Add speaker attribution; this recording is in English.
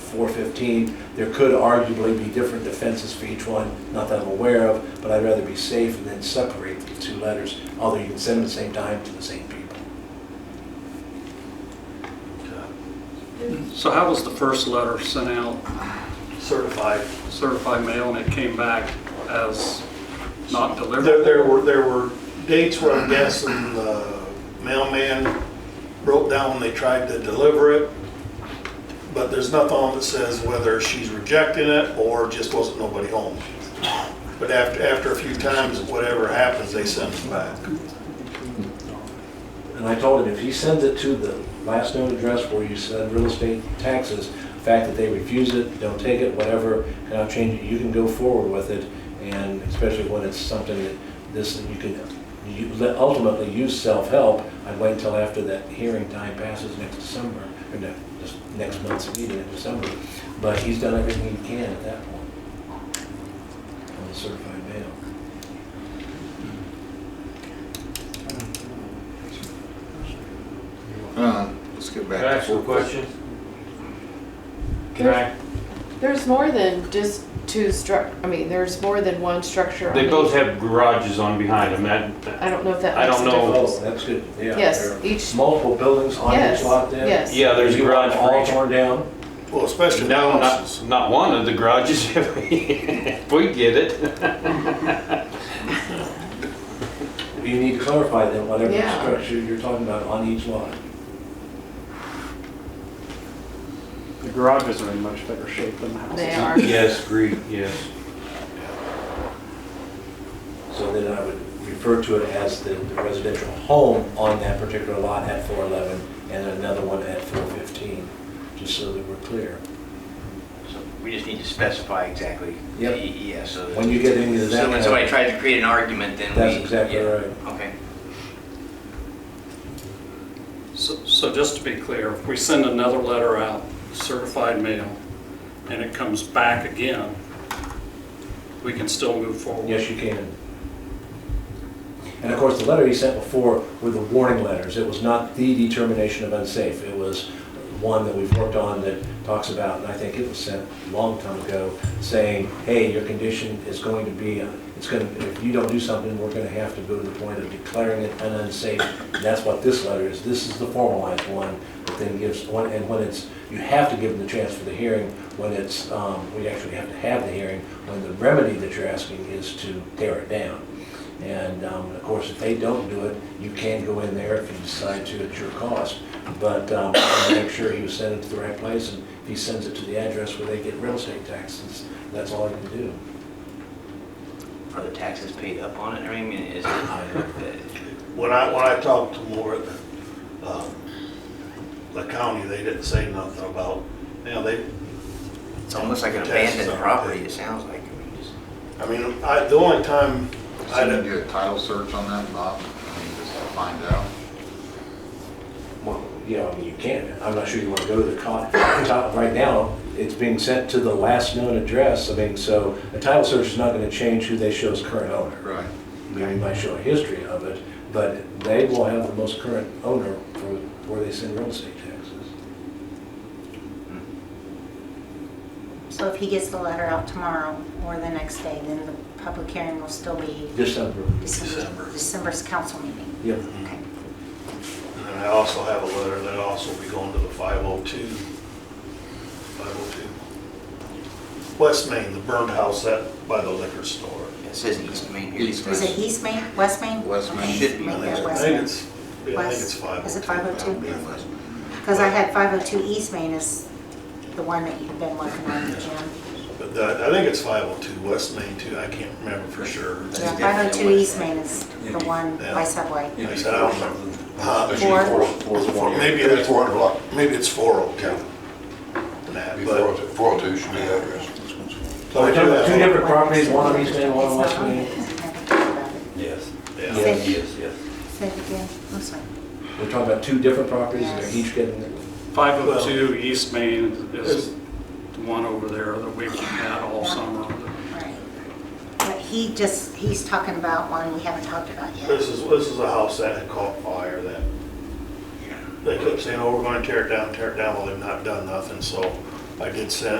Speaker 1: four fifteen. There could arguably be different defenses for each one, not that I'm aware of, but I'd rather be safe and then separate the two letters, although you can send them at the same time to the same people.
Speaker 2: So how was the first letter sent out,
Speaker 3: certified.
Speaker 2: certified mail, and it came back as not
Speaker 3: There,
Speaker 2: delivered?
Speaker 3: there were, there were dates where I'm guessing the mailman wrote down when they tried to deliver it, but there's nothing on that says whether she's rejecting it or just wasn't nobody home. But after, after a few times, whatever happens, they send it back.
Speaker 1: And I told him, if he sends it to the last known address where you said real estate taxes, the fact that they refuse it, don't take it, whatever, and I'll change it, you can go forward with it, and especially when it's something that this, that you can, you let- ultimately use self-help, I'd wait until after that hearing time passes next December, or no, just next month's meeting in December, but he's done everything he can at that point. On the certified mail.
Speaker 4: Uh, Let's get back.
Speaker 5: Can
Speaker 4: to
Speaker 5: I ask a
Speaker 4: four-
Speaker 5: question? Can
Speaker 6: There's,
Speaker 5: I,
Speaker 6: there's more than just two struct, I mean, there's more than one structure. on
Speaker 5: they both
Speaker 6: each-
Speaker 5: have garages on behind them, that, that-
Speaker 6: I don't know if that
Speaker 5: I
Speaker 6: makes a
Speaker 5: don't know.
Speaker 1: Oh,
Speaker 6: difference.
Speaker 1: that's good, yeah.
Speaker 6: Yes,
Speaker 1: there are
Speaker 6: each,
Speaker 1: Multiple buildings on each
Speaker 6: Yes,
Speaker 1: lot then?
Speaker 6: yes.
Speaker 5: yeah, there's a
Speaker 1: You want
Speaker 5: garage
Speaker 1: them
Speaker 5: for
Speaker 1: all
Speaker 5: each.
Speaker 1: torn down?
Speaker 3: Well, especially
Speaker 5: No,
Speaker 3: houses.
Speaker 5: not, not one of the garages, if we get it.
Speaker 1: You need to clarify then whatever
Speaker 6: Yeah.
Speaker 1: structure you're talking about on each lot.
Speaker 7: The garages are in much better shape than the houses.
Speaker 6: they are.
Speaker 5: Yes, agreed, yes.
Speaker 1: So then I would refer to it as the the residential home on that particular lot at 411 and another one at 415, just so that we're clear.
Speaker 8: So we just need to specify exactly.
Speaker 1: Yep.
Speaker 8: Yeah, so.
Speaker 1: When you get into that. uh,
Speaker 8: So when somebody tries to create an argument, then we.
Speaker 1: That's exactly
Speaker 8: yeah,
Speaker 1: right.
Speaker 8: Okay.
Speaker 2: So so just to be clear, if we send another letter out, certified mail, and it comes back again, we can still move forward?
Speaker 1: Yes, you can. And of course, the letter he sent before were the warning letters. It was not the determination of unsafe. It was one that we've worked on that talks about, and I think it was sent a long time ago, saying, hey, your condition is going to be, it's going, to if you don't do something, we're going to have to go to the point of declaring it an unsafe. And that's what this letter is. This is the formalized one that then gives one, and when it's, you have to give them the chance for the hearing, when it's, um, we actually have to have the hearing, when the remedy that you're asking is to tear it down. And um, of course, if they don't do it, you can go in there if you decide to at your cost. But um, I wanna make sure he was sending it to the right place, and if he sends it to the address where they get real estate taxes, that's all he can do.
Speaker 8: Are the taxes paid up on it? uh, I mean, is it?
Speaker 3: When I, when I talked to more at the, um, the county, they didn't say nothing about, you know, they,
Speaker 8: It's almost like an
Speaker 3: Taxes
Speaker 8: abandoned
Speaker 3: on it.
Speaker 8: property, it sounds like. I mean, just-
Speaker 3: I mean, I, the only time I
Speaker 4: Should we
Speaker 3: didn't,
Speaker 4: do a title search on that, Bob? I mean, Just to find out.
Speaker 1: Well, yeah, I mean, you can. I'm not sure you want to go to the co- top right now. It's being sent to the last known address. I mean, so a title search is not going to change who they show as current owner.
Speaker 4: Right.
Speaker 1: They might show a history of it, but they will have the most current owner for where they send real estate taxes.
Speaker 9: So if he gets the letter out tomorrow or the next day, then the public hearing will still be
Speaker 1: December.
Speaker 3: December.
Speaker 9: December, December's council meeting?
Speaker 1: Yep.
Speaker 9: Okay.
Speaker 3: and I also have a letter that also will be going to the 502, 502. West Main, the burned house that, by the liquor store.
Speaker 8: It says East Main here.
Speaker 4: East Main.
Speaker 9: Is it East Main, West Main?
Speaker 4: West Main.
Speaker 9: Okay,
Speaker 8: Should be.
Speaker 9: Make
Speaker 3: I
Speaker 9: that
Speaker 3: think- I
Speaker 9: West
Speaker 3: think
Speaker 9: Main.
Speaker 3: it's, yeah, I think it's
Speaker 9: West-
Speaker 3: 502.
Speaker 9: is it
Speaker 4: Yeah,
Speaker 9: 502?
Speaker 4: West Main.
Speaker 9: Because I had 502 East Main is the one that you've been working on, Jim.
Speaker 3: But that- I think it's 502 West Main too, I can't remember for sure.
Speaker 8: That's
Speaker 9: Yeah,
Speaker 8: definitely West
Speaker 9: 502 East
Speaker 8: Main.
Speaker 9: Main is the one by Subway.
Speaker 3: Like I said, I don't remember. Huh?
Speaker 9: Four.
Speaker 3: Four- Maybe it's 400 block, maybe it's 402. That, but-
Speaker 4: should be the address.
Speaker 3: So I do
Speaker 1: Two
Speaker 3: have-
Speaker 1: different properties, one on East Main, one on West
Speaker 9: It's not on
Speaker 1: Main.
Speaker 9: it. Never talked about it.
Speaker 5: Yes,
Speaker 3: yeah.
Speaker 9: Say it-
Speaker 5: yes.
Speaker 9: Say it again, I'm sorry.
Speaker 1: We're talking about two different properties, and they're each getting,
Speaker 2: 502 East Main is the one over there that we've had all summer.
Speaker 9: Right. But he just, he's talking about one we haven't talked about yet.
Speaker 3: This is, this is a house that had caught fire that, they kept saying, oh, we're gonna tear it down, tear it down, well, they've not done nothing, so I did send,